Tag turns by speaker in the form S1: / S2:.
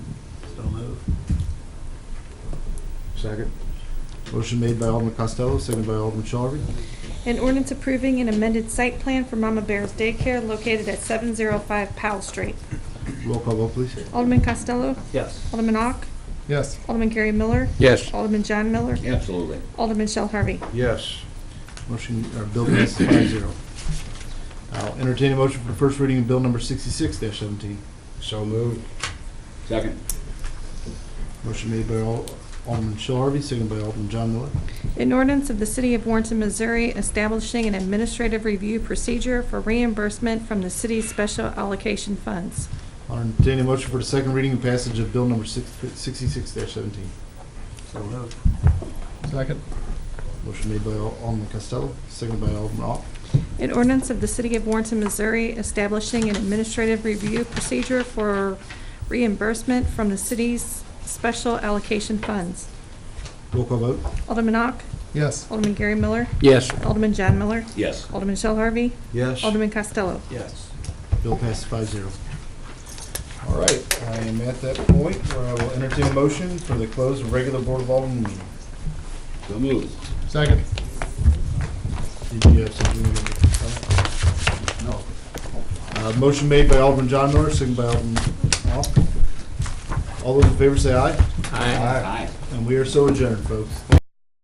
S1: Second. Motion made by Alderman Costello, seconded by Alderman Shelby.
S2: An ordinance approving an amended site plan for Mama Bear's Daycare located at 705 Powell Street.
S1: Roll call vote, please.
S2: Alderman Costello.
S3: Yes.
S2: Alderman Ock.
S1: Yes.
S2: Alderman Gary Miller.
S4: Yes.
S2: Alderman John Miller.
S4: Absolutely.
S2: Alderman Shell Harvey.
S5: Yes.
S1: Motion, or bill passes five zero. I'll entertain a motion for the first reading of bill number sixty-six seventeen.
S5: So moved.
S4: Second.
S1: Motion made by Al- Alderman Shell Harvey, seconded by Alderman John Miller.
S2: An ordinance of the City of Warrenton, Missouri establishing an administrative review procedure for reimbursement from the city's special allocation funds.
S1: I'll entertain a motion for the second reading and passage of bill number six- sixty-six seventeen.
S3: So moved.
S1: Second. Motion made by Al- Alderman Costello, seconded by Alderman Ock.
S2: An ordinance of the City of Warrenton, Missouri establishing an administrative review procedure for reimbursement from the city's special allocation funds.
S1: Roll call vote.
S2: Alderman Ock.
S1: Yes.
S2: Alderman Gary Miller.
S4: Yes.
S2: Alderman John Miller.
S4: Yes.
S2: Alderman Shell Harvey.
S5: Yes.
S2: Alderman Costello.
S3: Yes.
S1: Bill passes five zero. All right, I am at that point where I will entertain a motion for the close of regular Board of Alderman meeting.
S4: So moved.
S1: Second. Did you have something you wanted to say? No. Uh, motion made by Alderman John Miller, second by Alderman Ock. All those in favor say aye,
S4: Aye.
S1: and we are so adjourned, folks.